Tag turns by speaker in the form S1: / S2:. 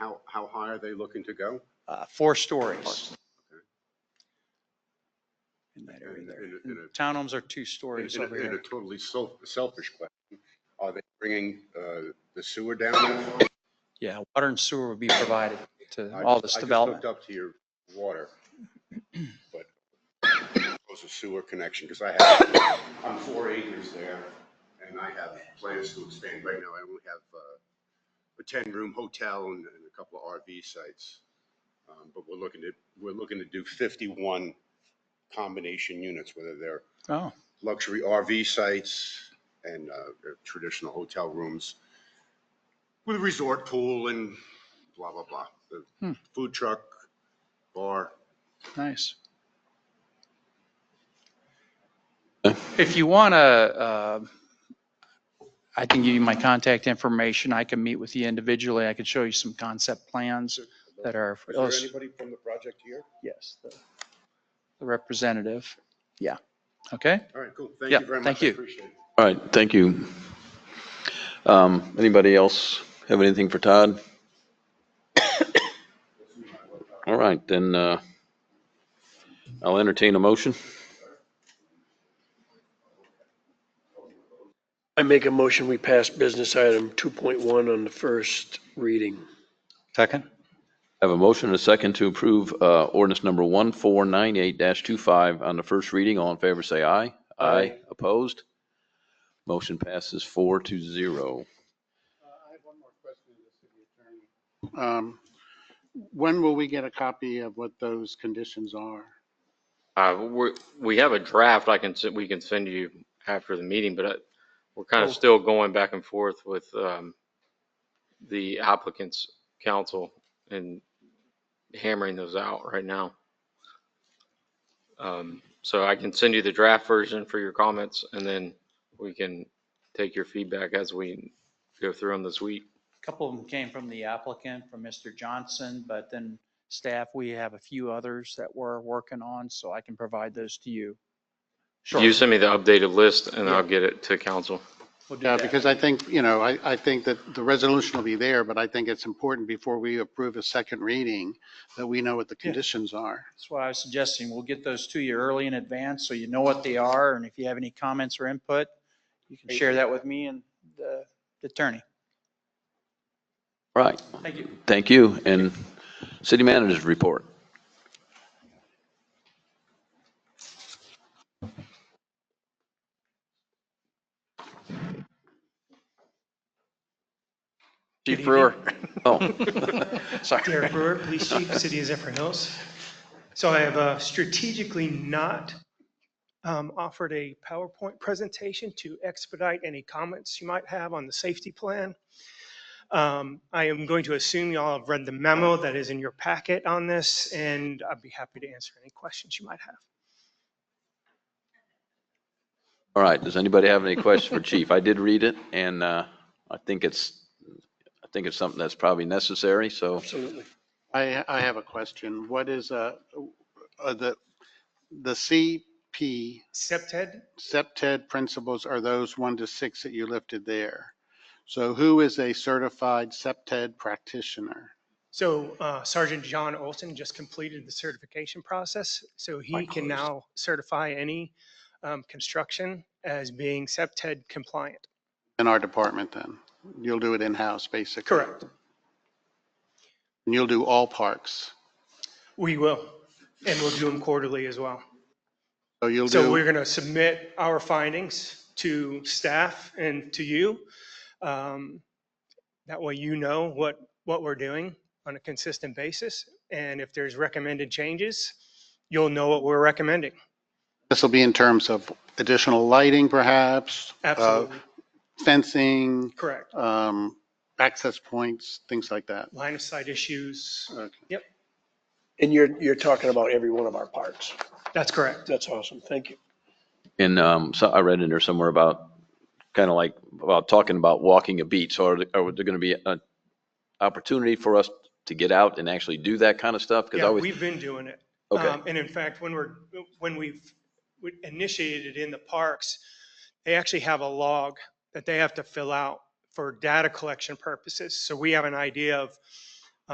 S1: how high are they looking to go?
S2: uh, four stories. In that area
S1: And-
S2: there.
S1: and-
S2: And
S1: and a-
S2: Townhomes are two
S1: In
S2: stories
S1: in
S2: over
S1: a in a
S2: here.
S1: totally self- selfish question, are they bringing uh, the sewer down? there?
S2: Yeah, water and sewer would be provided to
S1: I
S2: all
S1: just-
S2: this development.
S1: I just hooked up to your water, but was a sewer connection, because I have, I'm four acres there, and I have plans to expand. Right now, I only have uh, a 10-room hotel and and a couple of RV sites. Um, But we're looking to, we're looking to do 51 combination units, whether they're
S2: Oh,
S1: luxury RV sites and uh, traditional hotel rooms with a resort pool and blah, blah, blah. The
S2: Hmm.
S1: Food truck, bar.
S2: nice. If you want to, I can give you my contact information. I can meet with you individually. I can show you some concept plans that are.
S1: Is there anybody from the project here?
S2: Yes, the the representative. Yeah. Okay?
S1: All right, cool. Thank
S2: Yeah,
S1: you very much.
S2: thank
S1: I
S2: you.
S1: appreciate it.
S3: All right, thank you. Um, Anybody else have anything for Todd? All right, then uh, I'll entertain a motion.
S4: I make a motion, we pass business item 2.1 on the first reading.
S2: Second.
S3: I have a motion and a second to approve uh, ordinance number 1498-25 on the first reading. All in favor, say aye. Aye. Opposed? Motion passes four to zero.
S5: I have one more question to the city attorney. Um, When will we get a copy of what those conditions are?
S6: Uh, we, we have a draft I can, s- we can send you after the meeting, but uh, we're kind of still going back and forth with, um, the applicant's counsel and hammering those out right now. Um, so I can send you the draft version for your comments and then we can take your feedback as we go through them this week.
S2: couple of them came from the applicant, from Mr. Johnson, but then staff, we have a few others that we're working on, so I can provide those to you.
S6: You send me the updated list and I'll get it to council.
S2: We'll do
S5: Yeah,
S2: that.
S5: Uh, because I think, you know, I, I think that the resolution will be there, but I think it's important before we approve a second reading that we know what the conditions are.
S2: That's why I was suggesting we'll get those to you early in advance, so you know what they are, and if you have any comments or input, you can share that with me and the the attorney.
S3: All right,
S2: Thank you.
S3: thank you. And city manager's report.
S2: Chief
S7: Brewer.
S3: Oh.
S7: Derek Brewer, Police Chief, City of Zephyr Hills. So I have uh, strategically not um, offered a PowerPoint presentation to expedite any comments you might have on the safety plan. Um, I am going to assume y'all have read the memo that is in your packet on this, and I'd be happy to answer any questions you might have.
S3: All right, does anybody have any questions for Chief? I did read it, and uh, I think it's, I think it's something that's probably necessary, so
S4: Absolutely.
S5: I, I have a question. What is, uh, uh, the, the CP
S7: SEPTED,
S5: SEPTED principles are those one to six that you lifted there. So who is a certified SEPTED practitioner?
S7: So uh, Sergeant John Olson just completed the certification process, so he can now certify any um, construction as being SEPTED compliant.
S5: In our department then? You'll do it in-house, basically?
S7: Correct.
S5: And you'll do all parks?
S7: We will, and we'll do them quarterly as well.
S5: So you'll
S7: So we're
S5: do,
S7: going to submit our findings to staff and to you. Um, That way you know what, what we're doing on a consistent basis, and if there's recommended changes, you'll know what we're recommending.
S5: this will be in terms of additional lighting perhaps? uh,
S7: Absolutely,
S5: Fencing,
S7: correct.
S5: um, access points, things like that?
S7: line of sight issues.
S4: And you're, you're talking about every one of our parks.
S7: That's correct.
S4: That's awesome. Thank you.
S3: and um, so I read in there somewhere about, kind of like, about talking about walking a beat, so are there, are there going to be an opportunity for us to get out and actually do that kind of stuff? Because I
S7: Yeah,
S3: always,
S7: we've been doing it.
S3: okay,
S7: Um, And in fact, when we're, when we've we initiated in the parks, they actually have a log that they have to fill out for data collection purposes. So we have an idea of